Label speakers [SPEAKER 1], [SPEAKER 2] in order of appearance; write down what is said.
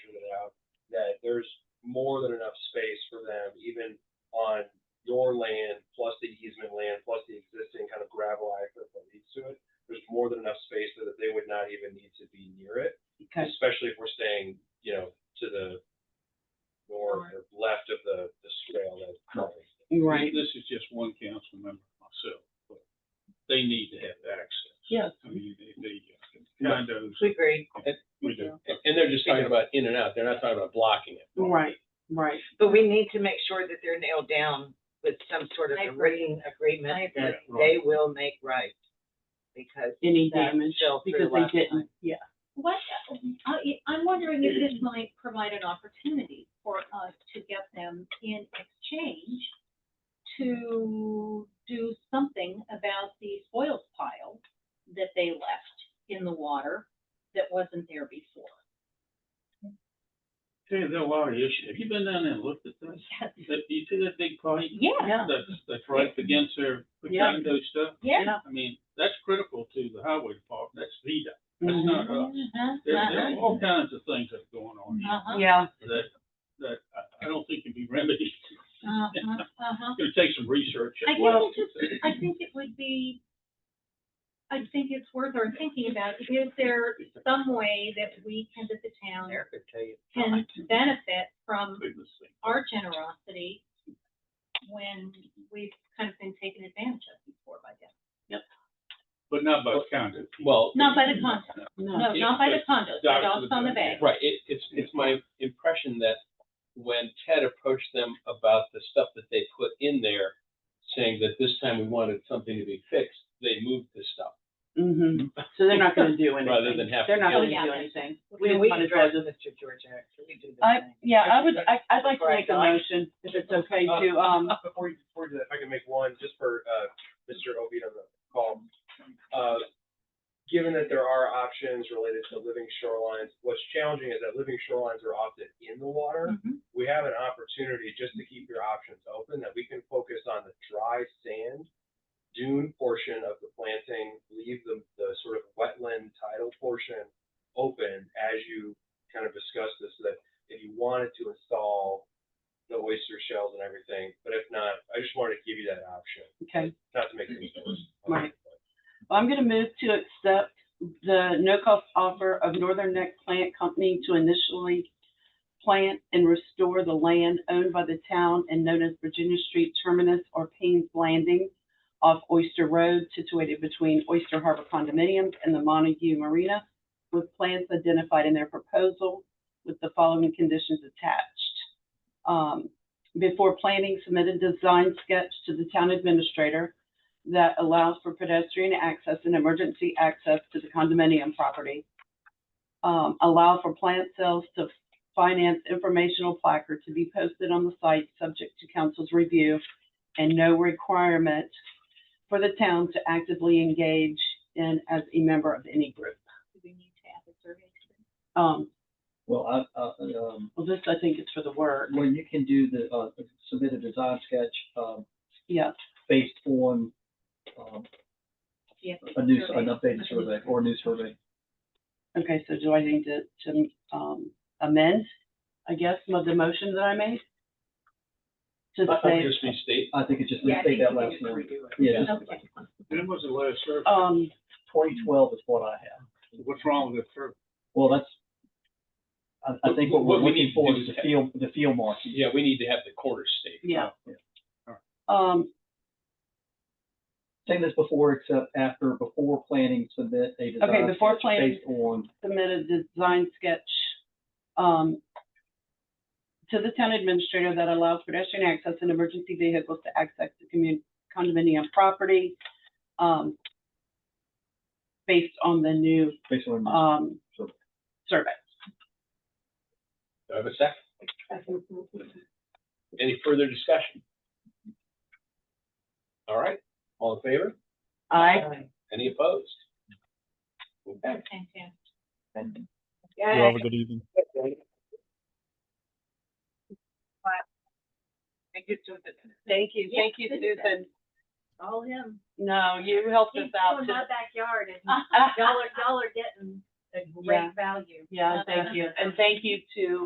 [SPEAKER 1] there's more than enough space for them, even on your land, plus the easement land, plus the existing kind of gravel access that leads to it. There's more than enough space so that they would not even need to be near it,
[SPEAKER 2] because
[SPEAKER 1] especially if we're staying, you know, to the north or left of the, the swale that.
[SPEAKER 2] right,
[SPEAKER 3] This is just one council member myself, but they need to have access.
[SPEAKER 2] Yeah.
[SPEAKER 3] I mean, they, they, uh, condos,
[SPEAKER 2] we agree.
[SPEAKER 3] we do.
[SPEAKER 4] And they're just talking about in and out, they're not talking about blocking it.
[SPEAKER 2] Right, right.
[SPEAKER 5] But we need to make sure that they're nailed down with some sort of
[SPEAKER 6] I
[SPEAKER 5] a
[SPEAKER 6] agree.
[SPEAKER 5] written
[SPEAKER 6] I
[SPEAKER 5] agreement
[SPEAKER 6] agree.
[SPEAKER 5] that
[SPEAKER 3] Yeah,
[SPEAKER 5] they will make right. Because.
[SPEAKER 2] Any
[SPEAKER 5] that
[SPEAKER 2] damage
[SPEAKER 5] fell through
[SPEAKER 2] because
[SPEAKER 5] last
[SPEAKER 2] they
[SPEAKER 5] time.
[SPEAKER 2] didn't, yeah.
[SPEAKER 6] What, I, I'm wondering if this might provide an opportunity for us to get them in exchange to do something about the spoils pile that they left in the water that wasn't there before.
[SPEAKER 3] Hey, there are a lot of issues. Have you been down there and looked at this?
[SPEAKER 6] Yes.
[SPEAKER 3] That, you see that big pipe
[SPEAKER 6] Yeah,
[SPEAKER 2] Yeah.
[SPEAKER 3] that's, that's right against their the
[SPEAKER 2] Yeah.
[SPEAKER 3] condo stuff?
[SPEAKER 6] yeah.
[SPEAKER 3] I mean, that's critical to the highway department, that's VDOT, that's
[SPEAKER 2] Mhm.
[SPEAKER 3] not us.
[SPEAKER 6] Uh-huh,
[SPEAKER 3] There, there are
[SPEAKER 6] uh-huh,
[SPEAKER 3] all kinds of things that are going on here
[SPEAKER 6] uh-huh,
[SPEAKER 2] Yeah,
[SPEAKER 3] that, that I, I don't think can be remedied.
[SPEAKER 6] uh-huh, uh-huh.
[SPEAKER 3] It'll take some research.
[SPEAKER 6] I think
[SPEAKER 2] Well-
[SPEAKER 6] it's just, I think it would be, I think it's worth our thinking about, is there some way that we can, that the town
[SPEAKER 5] Eric could tell you.
[SPEAKER 6] can benefit from
[SPEAKER 3] Goodness sake.
[SPEAKER 6] our generosity when we've kind of been taken advantage of before by them?
[SPEAKER 3] But not by condo.
[SPEAKER 4] Well,
[SPEAKER 6] Not by the condos,
[SPEAKER 2] no,
[SPEAKER 7] Hmm.
[SPEAKER 6] no, not by the condos, the
[SPEAKER 3] Down to
[SPEAKER 6] dogs on the bay.
[SPEAKER 4] right, it, it's, it's my impression that when Ted approached them about the stuff that they put in there, saying that this time we wanted something to be fixed, they moved the stuff.
[SPEAKER 2] hmm So they're not gonna do anything.
[SPEAKER 4] Rather than have
[SPEAKER 2] They're
[SPEAKER 4] to
[SPEAKER 2] not
[SPEAKER 4] deal
[SPEAKER 2] gonna
[SPEAKER 6] with
[SPEAKER 2] do
[SPEAKER 6] it.
[SPEAKER 2] anything.
[SPEAKER 5] Can
[SPEAKER 2] didn't
[SPEAKER 5] we
[SPEAKER 2] wanna
[SPEAKER 5] address
[SPEAKER 2] do it.
[SPEAKER 5] Mr. George Eric? Can we do this?
[SPEAKER 2] I,
[SPEAKER 5] thing?
[SPEAKER 2] yeah, I would, I, I'd like to
[SPEAKER 5] Before I
[SPEAKER 2] make a
[SPEAKER 5] die.
[SPEAKER 2] motion, if it's okay to, um,
[SPEAKER 1] Before you, before you do that, if I can make one, just for, uh, Mr. Obeid on the call. Uh, given that there are options related to living shorelines, what's challenging is that living shorelines are often in the water.
[SPEAKER 6] Mhm.
[SPEAKER 1] We have an opportunity just to keep your options open, that we can focus on the dry sand dune portion of the planting, leave the, the sort of wetland tidal portion open as you kind of discuss this, so that if you wanted to install the oyster shells and everything, but if not, I just wanted to give you that option,
[SPEAKER 2] okay.
[SPEAKER 1] not to make things worse.
[SPEAKER 2] Right. Well, I'm gonna move to accept the no-cost offer of Northern Neck Plant Company to initially plant and restore the land owned by the town and known as Virginia Street Terminus or Payne's Landing off Oyster Road, situated between Oyster Harbor condominiums and the Montague Marina, with plans identified in their proposal with the following conditions attached. Um, before planning, submit a design sketch to the town administrator that allows for pedestrian access and emergency access to the condominium property. Um, allow for plant sales to finance informational placard to be posted on the site, subject to council's review, and no requirement for the town to actively engage in as a member of any group.
[SPEAKER 6] Do we need to add a survey to this?
[SPEAKER 2] Um,
[SPEAKER 7] Well, I, I, um,
[SPEAKER 2] well, this, I think, is for the word,
[SPEAKER 7] when you can do the, uh, submit a design sketch, um,
[SPEAKER 2] yes.
[SPEAKER 7] based on, um,
[SPEAKER 6] Yes,
[SPEAKER 7] a new,
[SPEAKER 6] survey.
[SPEAKER 7] an updated survey or a new survey.
[SPEAKER 2] Okay, so do I need to, to, um, amend, I guess, some of the motion that I made? To
[SPEAKER 4] I
[SPEAKER 2] say,
[SPEAKER 4] think just restate,
[SPEAKER 7] I think it's just,
[SPEAKER 5] Yeah, I
[SPEAKER 7] let's
[SPEAKER 5] think
[SPEAKER 7] take
[SPEAKER 5] we
[SPEAKER 7] that
[SPEAKER 5] can
[SPEAKER 7] last
[SPEAKER 5] just
[SPEAKER 7] number.
[SPEAKER 5] redo it.
[SPEAKER 7] Yeah,
[SPEAKER 6] Okay.
[SPEAKER 3] When was the last survey?
[SPEAKER 2] um,
[SPEAKER 7] twenty twelve is what I have.
[SPEAKER 3] What's wrong with the survey?
[SPEAKER 7] Well, that's, I, I think what we're
[SPEAKER 4] What we
[SPEAKER 7] looking
[SPEAKER 4] need to
[SPEAKER 7] for
[SPEAKER 4] do
[SPEAKER 7] is
[SPEAKER 4] is
[SPEAKER 7] the
[SPEAKER 4] have-
[SPEAKER 7] field, the field marking.
[SPEAKER 4] yeah, we need to have the corner state.
[SPEAKER 2] yeah.
[SPEAKER 7] Yeah.
[SPEAKER 2] Um,
[SPEAKER 7] Same as before, except after, before planning, submit a design.
[SPEAKER 2] Okay, before
[SPEAKER 7] sketch
[SPEAKER 2] planning.
[SPEAKER 7] Based on,
[SPEAKER 2] submit a design sketch, um, to the town administrator that allows pedestrian access and emergency vehicles to access the commun, condominium property, um, based on the new,
[SPEAKER 7] based on. a new
[SPEAKER 2] um,
[SPEAKER 7] survey.
[SPEAKER 2] survey.
[SPEAKER 4] Do I have a second? Any further discussion? All right, all in favor?
[SPEAKER 2] I,
[SPEAKER 5] Alright.
[SPEAKER 4] Any opposed? Okay.
[SPEAKER 6] Fantastic.
[SPEAKER 7] And
[SPEAKER 5] Yeah, I
[SPEAKER 3] good evening.
[SPEAKER 5] think it's just a-
[SPEAKER 2] thank you, thank you,
[SPEAKER 6] Yeah.
[SPEAKER 2] Susan.
[SPEAKER 6] All him.
[SPEAKER 2] No, you helped us
[SPEAKER 6] He's
[SPEAKER 2] out.
[SPEAKER 6] doing my backyard and
[SPEAKER 2] to-
[SPEAKER 6] y'all are, y'all are getting a
[SPEAKER 2] Yeah.
[SPEAKER 6] great value.
[SPEAKER 2] Yeah, thank you. And thank you to